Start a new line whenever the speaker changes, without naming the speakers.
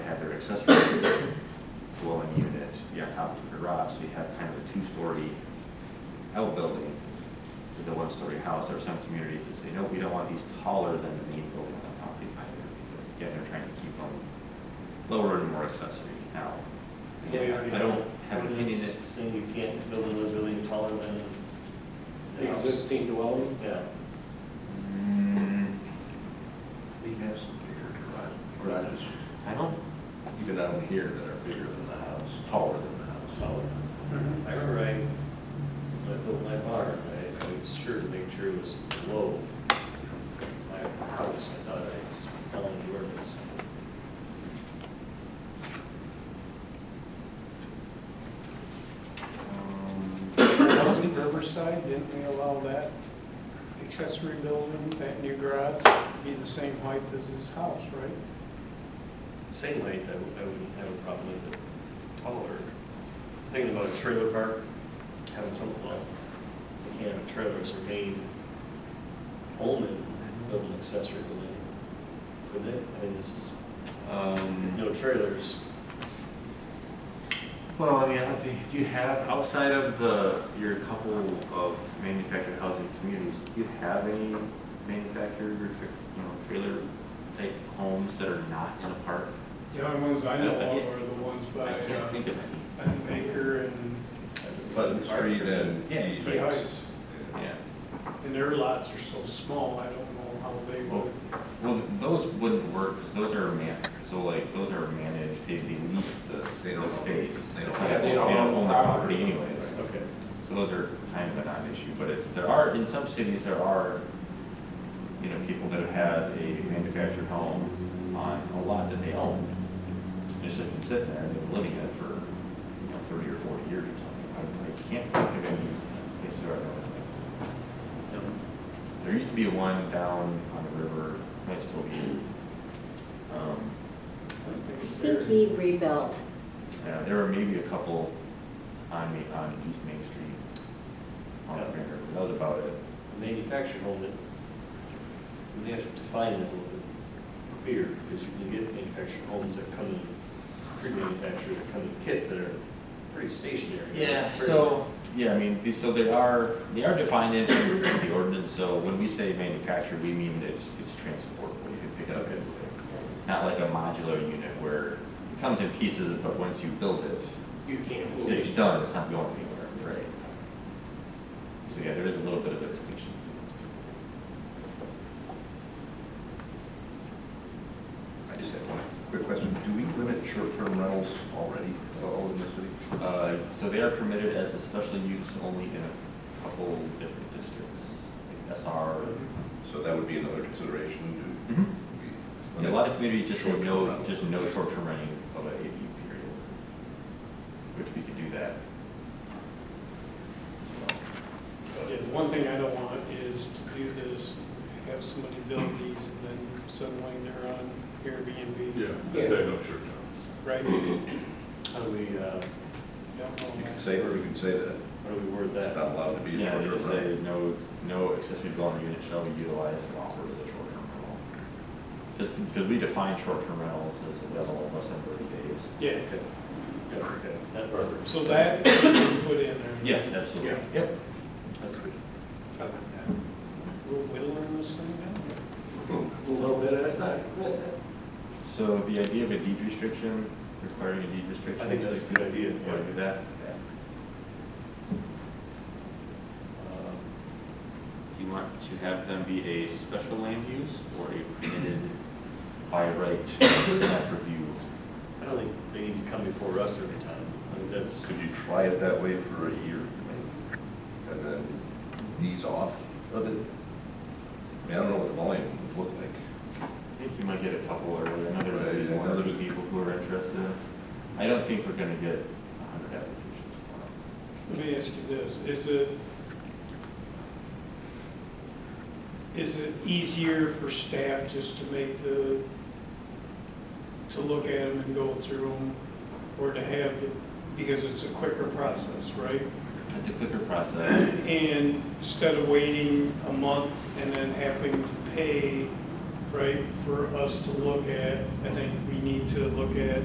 accessory dwelling unit, you're on top of a garage, so you have kind of a two-story outbuilding with a one-story house. There are some communities that say, no, we don't want these taller than the main building on the property either, because again, they're trying to keep them lower and more accessory now. Again, I don't have an opinion that
Saying you can't build another building taller than. the house.
Existing dwelling?
Yeah.
We have some bigger garage, garages,
I don't,
even down here that are bigger than the house, taller than the house.
Taller. I remember I, when I built my barn, I, I was sure to make sure it was below my house. I thought I was following the ordinance.
Wasn't Riverside, didn't we allow that accessory building, that new garage, be the same height as his house, right?
Same height, I would- I wouldn't have a problem with it taller. Thinking about a trailer park, having something, well, you can't have a trailer as your main home and build an accessory building. Couldn't it? I mean, this is,
um,
no trailers.
well, I mean, I don't think, do you have, outside of the, your couple of manufactured housing communities, do you have any manufactured or, you know, trailer type homes that are not in a park?
The only ones I
know
know
of
of
are
are the ones by
I can't think of any.
Baker and
Pleasant Street and.
Key Heights.
Yeah.
And their lots are so small, I don't know how they would,
Well, those wouldn't work, because those are man, so like, those are managed, they they lease the,
They
the
don't-
space.
they don't-
Yeah, They don't own the property anyways.
Okay.
So those are kind of a non-issue, but it's, there are, in some cities, there are, you know, people that have had a manufactured home on a lot that they own. It's just been sitting there, and they've been living in it for, you know, thirty or forty years or something. I- I can't think of any places where I've noticed that. There used to be one down on the river, might still be. Um,
I don't think
I
it's
think
there.
he rebuilt.
Yeah, there were maybe a couple on, Ma- on East Main Street. On the river, but that was about it.
A manufactured home that, we have to define it a little bit clearer, because you can get manufactured homes that come in, pre-manufactured, that come in kits that are pretty stationary.
So, yeah, I mean, these- so they are, they are defined in in the ordinance, so when we say manufactured, we mean it's, it's transportable, you can pick it up and move it. Not like a modular unit where it comes in pieces, but once you build it,
You can't
it's-
move it.
it's done, it's not going anywhere. Right. So, yeah, there is a little bit of a distinction.
I just have one quick question. Do we limit short-term rentals already all over the city?
Uh, So they are permitted as a special use only in a couple different districts, like SR.
Mm-hmm.
So that would be another consideration
Mhm.
to.
Yeah, A lot of communities just say
Short-term
no,
rentals.
just no short-term renting of an ADU period, which we could do that.
Yeah, one thing I don't want is to do this, have somebody build these and then suddenly they're on Airbnb.
Yeah, I say no short term.
Right?
How do we, uh,
Don't
You
know.
could say, or you could say that
how do we word
it's
that?
not allowed to be a
Yeah, they
short-term
just say
rental.
no, no accessory dwelling unit shall be utilized and offered as a short-term rental. Just because we define short-term rentals as a rental of less than thirty days.
Yeah,
Yeah, okay, That works.
so that we can put in there.
Yes, absolutely.
Yeah.
Yep.
That's good.
We'll whittle in this thing down.
Boom.
A little bit at a time.
So the idea of a deed restriction, requiring a deed restriction.
I think that's a good idea.
You want to do that?
Um,
Do you want to have them be a special land use or a permitted by right snap review?
I don't think they need to come before us every time. I think that's,
Could you try it that way for a year? And then ease off of it? I mean, I don't know what the volume would look like.
I think you might get a couple or another,
Right,
there's one or two
another-
people who are interested. I don't think we're gonna get a hundred applications.
Let me ask you this, is it, is it easier for staff just to make the, to look at them and go through them, or to have, the- because it's a quicker process, right?
It's a quicker process.
And instead of waiting a month and then having to pay, right, for us to look at, I think we need to look at